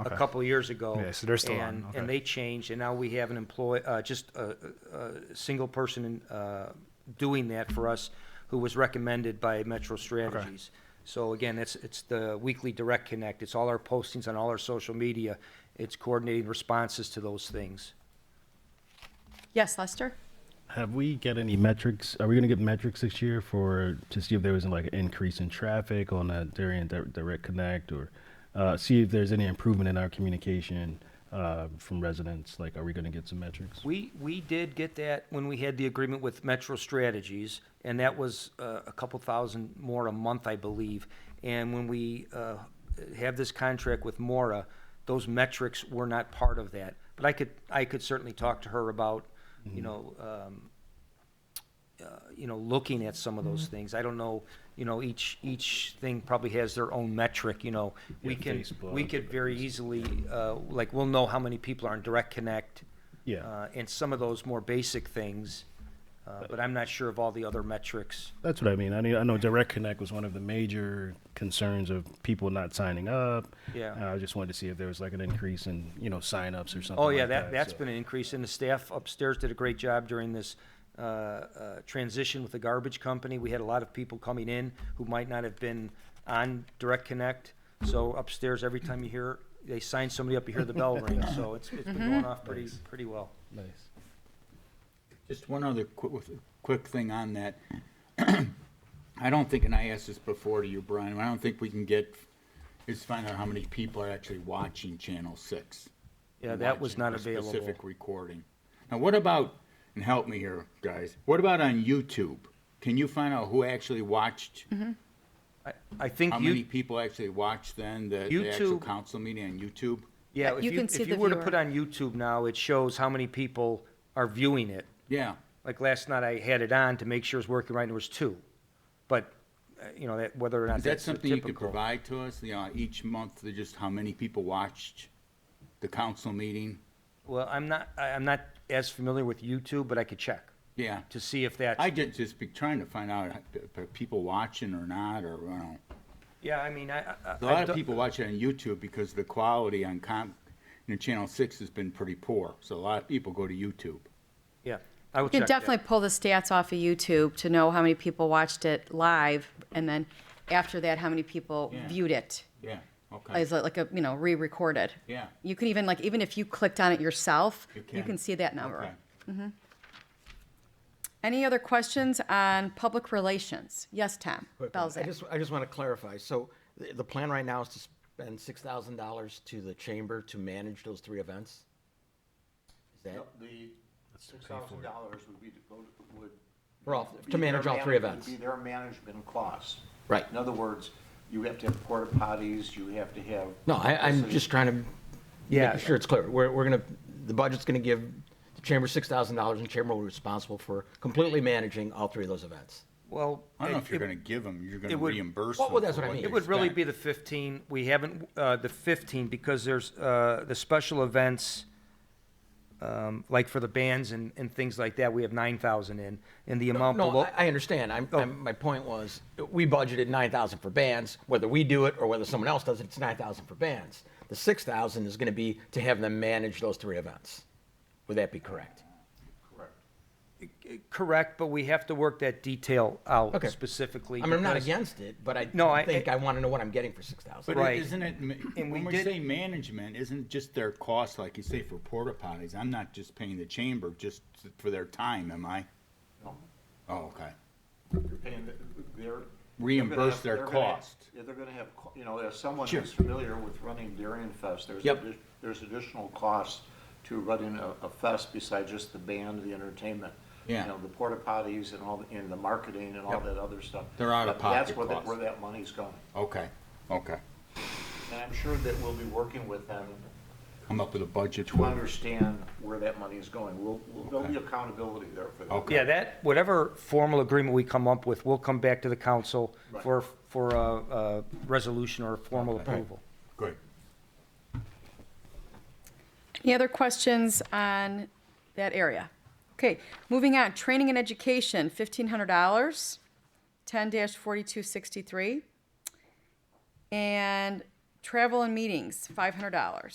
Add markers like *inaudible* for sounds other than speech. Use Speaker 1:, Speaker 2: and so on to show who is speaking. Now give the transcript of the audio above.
Speaker 1: a
Speaker 2: Okay.
Speaker 1: couple of years ago.
Speaker 2: Yeah, so they're still on,
Speaker 1: and-
Speaker 2: okay.
Speaker 1: And they changed, and now we have an employee, uh, just a, a a single person, uh, doing that for us, who was recommended by Metro Strategies. So again, it's, it's the weekly direct connect, it's all our postings on all our social media, it's coordinating responses to those things.
Speaker 3: Yes, Lester?
Speaker 4: Have we got any metrics? Are we going to get metrics this year for to see if there was like an increase in traffic on that during Di- direct connect, or uh, see if there's any improvement in our communication uh, from residents? Like, are we going to get some metrics?
Speaker 1: We, we did get that when we had the agreement with Metro Strategies, and that was uh, a couple thousand more a month, I believe. And when we uh, have this contract with Mora, those metrics were not part of that. But I could, I could certainly talk to her about,
Speaker 4: Mm-hmm.
Speaker 1: you know, um, uh, you know, looking at some of those
Speaker 4: Mm-hmm.
Speaker 1: things. I don't know, you know, each, each thing probably has their own metric, you know. We
Speaker 4: Yeah,
Speaker 1: can,
Speaker 4: Facebook,
Speaker 1: we could very easily, uh, like, we'll know how many people are in Direct Connect
Speaker 4: Yeah.
Speaker 1: uh, and some of those more basic things, uh, but I'm not sure of all the other metrics.
Speaker 4: That's what I mean. I mean, I know direct connect was one of the major concerns of people not signing up.
Speaker 1: Yeah.
Speaker 4: And I just wanted to see if there was like an increase in you know signups or something.
Speaker 1: Oh, yeah,
Speaker 4: like
Speaker 1: that, that's
Speaker 4: so.
Speaker 1: been an increase, and the staff upstairs did a great job during this uh, uh, transition with the garbage company. We had a lot of people coming in who might not have been on Direct Connect, so upstairs, every time you hear, they sign somebody up, you hear the
Speaker 4: *laughs*
Speaker 1: bell ring, so it's, it's been
Speaker 5: Mm-hmm.
Speaker 1: going off pretty, pretty well.
Speaker 4: nice.
Speaker 5: Just one other quick, quick thing on that. *clears throat* I don't think, and I asked this before to you, Brian, I don't think we can get, is find out how many people are actually watching Channel Six.
Speaker 1: Yeah, that was
Speaker 5: watching
Speaker 1: not
Speaker 5: a
Speaker 1: available.
Speaker 5: Specific recording. Now, what about, and help me here, guys, what about on YouTube? Can you find out who actually watched,
Speaker 1: I- I think
Speaker 5: how many
Speaker 1: Mm-hmm. you,
Speaker 5: people actually watched then, the, the actual
Speaker 1: YouTube-
Speaker 5: council meeting on YouTube?
Speaker 1: yeah,
Speaker 3: Yeah,
Speaker 1: if
Speaker 3: you
Speaker 1: you,
Speaker 3: can see
Speaker 1: if you
Speaker 3: the
Speaker 1: were to
Speaker 3: viewer.
Speaker 1: put on YouTube now, it shows how many people are viewing it.
Speaker 5: Yeah,
Speaker 1: like last night I had it on to make sure it's working right and there was two. But, uh, you know, that, whether or not
Speaker 5: is that
Speaker 1: that's
Speaker 5: something you could
Speaker 1: typical.
Speaker 5: provide to us, you know, each month, just how many people watched the council meeting?
Speaker 1: Well, I'm not, I- I'm not as familiar with YouTube, but I could check
Speaker 5: Yeah.
Speaker 1: to see if that's,
Speaker 5: I just, just be trying to find out if are people watching or not, or, you know.
Speaker 1: yeah, I mean, I, I.
Speaker 5: A lot of people watch it on YouTube because the quality on com, you know, Channel Six has been pretty poor, so a lot of people go to YouTube.
Speaker 1: Yeah, I would
Speaker 3: You
Speaker 1: check
Speaker 3: can
Speaker 1: that.
Speaker 3: definitely pull the stats off of YouTube to know how many people watched it live, and then after that, how many people
Speaker 5: Yeah.
Speaker 3: viewed it.
Speaker 5: Yeah, okay.
Speaker 3: Is it like a, you know, re-recorded?
Speaker 5: Yeah.
Speaker 3: You could even, like, even if you clicked on it yourself,
Speaker 5: You
Speaker 3: you
Speaker 5: can.
Speaker 3: can see that number.
Speaker 5: Okay.
Speaker 3: Any other questions on public relations? Yes, Tom
Speaker 6: Quick one. I
Speaker 3: Belzak.
Speaker 6: just, I just want to clarify. So the, the plan right now is to spend six thousand dollars to the chamber to manage those three events? Is that,
Speaker 7: The six thousand dollars would be to go to, would.
Speaker 6: For all-
Speaker 7: be
Speaker 6: to manage
Speaker 7: their
Speaker 6: all three
Speaker 7: manage-
Speaker 6: events.
Speaker 7: Would be their management costs.
Speaker 6: Right.
Speaker 7: In other words, you have to have porta potties, you have to have.
Speaker 6: no, I, I'm just trying to
Speaker 1: Yeah.
Speaker 6: make sure it's clear. We're, we're gonna, the budget's gonna give the chamber six thousand dollars and chamber will be responsible for completely managing all three of those events.
Speaker 1: Well.
Speaker 5: I don't know
Speaker 1: it-
Speaker 5: if you're
Speaker 1: it-
Speaker 5: gonna give them, you're
Speaker 1: it
Speaker 5: gonna
Speaker 1: would-
Speaker 5: reimburse
Speaker 6: Well,
Speaker 5: them.
Speaker 6: well, that's
Speaker 5: for
Speaker 6: what I mean.
Speaker 5: they
Speaker 1: It would really
Speaker 5: spent.
Speaker 1: be the fifteen. We haven't, uh, the fifteen, because there's, uh, the special events, um, like for the bands and, and things like that, we have nine thousand in, and the amount
Speaker 6: No,
Speaker 1: below.
Speaker 6: I, I understand. I'm,
Speaker 1: Oh.
Speaker 6: I'm, my point was, we budgeted nine thousand for bands. Whether we do it or whether someone else does it, it's nine thousand for bands. The six thousand is going to be to have them manage those three events. Would that be correct?
Speaker 1: Correct, but we have to work that detail out
Speaker 6: Okay.
Speaker 1: specifically.
Speaker 6: I mean, I'm not
Speaker 1: because-
Speaker 6: against it, but I
Speaker 1: No, I-
Speaker 6: think I, want to know what I'm getting for six thousand.
Speaker 5: But
Speaker 1: Right.
Speaker 5: it- isn't it, ma-
Speaker 1: And we
Speaker 5: when we
Speaker 1: did-
Speaker 5: say management, isn't just their cost, like you say, for porta potties, I'm not just paying the chamber just for their time, am I?
Speaker 7: No.
Speaker 5: Oh, okay.
Speaker 7: You're paying the- they're-
Speaker 5: Reimburse
Speaker 7: they're
Speaker 5: their
Speaker 7: gonna have- they're gonna have-
Speaker 5: cost.
Speaker 7: Yeah, they're gonna have, co- you know, as someone
Speaker 5: Sure.
Speaker 7: who's familiar with running Darien Fest, there's,
Speaker 6: Yep.
Speaker 7: addi- there's additional costs to running a, a fest besides just the band, the entertainment.
Speaker 5: Yeah.
Speaker 7: You know, the porta potties and all, the- and the marketing and all
Speaker 6: Yep.
Speaker 7: that other stuff.
Speaker 5: They're out of
Speaker 7: But That's
Speaker 5: pocket
Speaker 7: where, that-
Speaker 5: costs.
Speaker 7: where that money's going.
Speaker 5: Okay, okay.
Speaker 7: And I'm sure that we'll be working with them
Speaker 5: Come up with a budget.
Speaker 7: to understand where that money is going. We'll, we'll- there'll be
Speaker 5: Okay.
Speaker 7: accountability there for that.
Speaker 5: Okay.
Speaker 1: Yeah, that, whatever formal agreement we come up with, we'll come back to the council
Speaker 7: Right.
Speaker 1: for, for a, a resolution or a formal approval.
Speaker 5: Good.
Speaker 3: Any other questions on that area? Okay, moving on, training and education, fifteen hundred dollars, ten forty-two sixty-three. And travel and meetings, five hundred dollars.